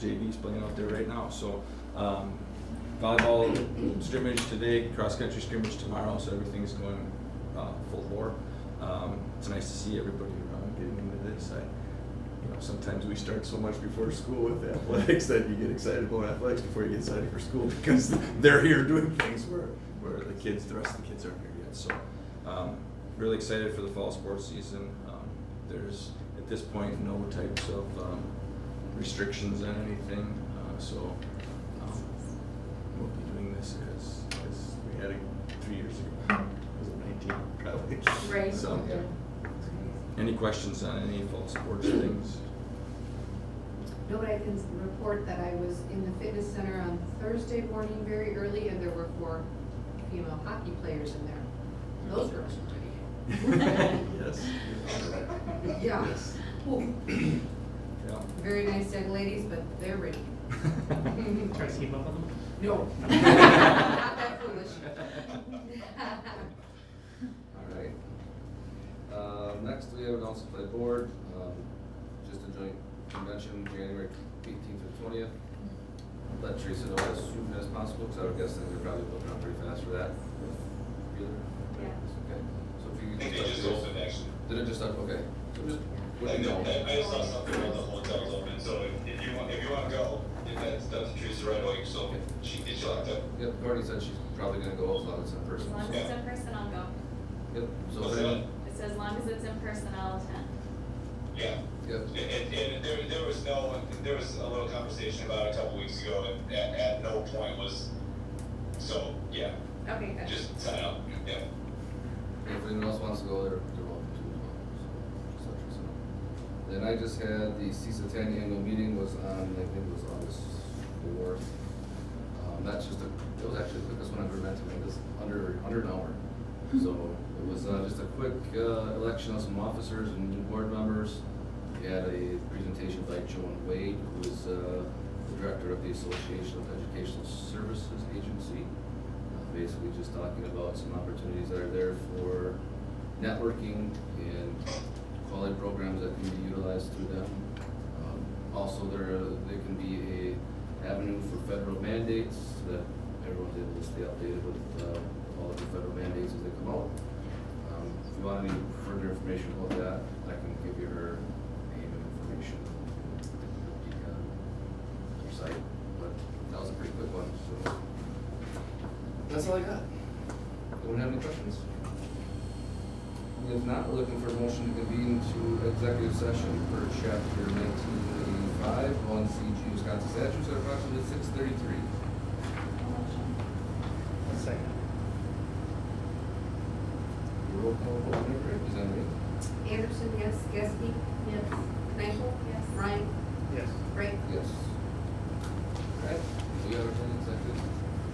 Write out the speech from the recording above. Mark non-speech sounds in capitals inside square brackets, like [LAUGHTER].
JV's playing out there right now, so, um, volleyball scrimmage today, cross-country scrimmage tomorrow, so everything's going, uh, full bore. Um, it's nice to see everybody around getting into this, I, you know, sometimes we start so much before school with [LAUGHS] athletics that you get excited about athletics before you get excited for school [LAUGHS] because they're here doing things where, where the kids, the rest of the kids aren't here yet, so, um, really excited for the fall sports season, um, there's, at this point, no types of, um, restrictions on anything, uh, so, um, we'll be doing this as, as we had it three years ago, [LAUGHS] was it nineteen, probably? Right. So, any questions on any fall sports things? No, but I can s- report that I was in the fitness center on Thursday morning very early and there were four female hockey players in there. Those girls were pretty. Yes. Yeah. Yes. Ooh, Yeah. Very nice young ladies, but [LAUGHS] they're ready. Try to keep up with them? No. Not that foolish. [LAUGHS] All right. Um, next, we have announcement by board, um, just a joint convention, January eighteenth to twentieth. Let Teresa know as soon as possible, because I would guess that they're probably looking up pretty fast for that. Yeah. Okay, so if you I think could they just just let me opened know. actually. Did it just, okay, so just, I let me know, know. I I saw something about the hotels open, so if- if you want, if you wanna go, if that's, that's Teresa right away, so she gets you locked up. Yep, Courtney said she's probably gonna go as long as it's in As person, long as so, it's in person, I'll go. yep, so, What's if that? anyone- It says as long as it's in person, I'll attend. Yeah, yep, and, and- and there, there was no, there was a little conversation about it a couple weeks ago, and at, at no point was, so, yeah, Okay, good. just sign up, yeah. If anyone else wants to go, they're, they're welcome to as well, so, just let us know. Then I just had the CISA ten annual meeting was on, I think it was August fourth. Um, that's just a, it was actually the quickest one I've ever meant to make, it's under, under an hour. So it was, uh, just a quick, uh, election of some officers and new board members. We had a presentation by Joan Wade, who is, uh, the director of the Association of Educational Services Agency. Uh, Basically just talking about some opportunities that are there for networking and quality programs that can be utilized through them. Um, Also, there, there can be a avenue for federal mandates so that everyone's able to stay updated with, uh, all of the federal mandates as they come out. Um, If you want any further information about that, I can give you her name and information. uh, Your site, but that was a pretty quick one, so. That's all I got. Anyone have any questions? If not, we're looking for a motion to convene to executive session per chapter nineteen eighty-five, one CG Wisconsin statutes at approximately six thirty-three. A second. Roll call vote, Nick, representative. Anderson, yes. Geske? Yes. Knifel? Yes. Ryan? Yes. Right? Yes.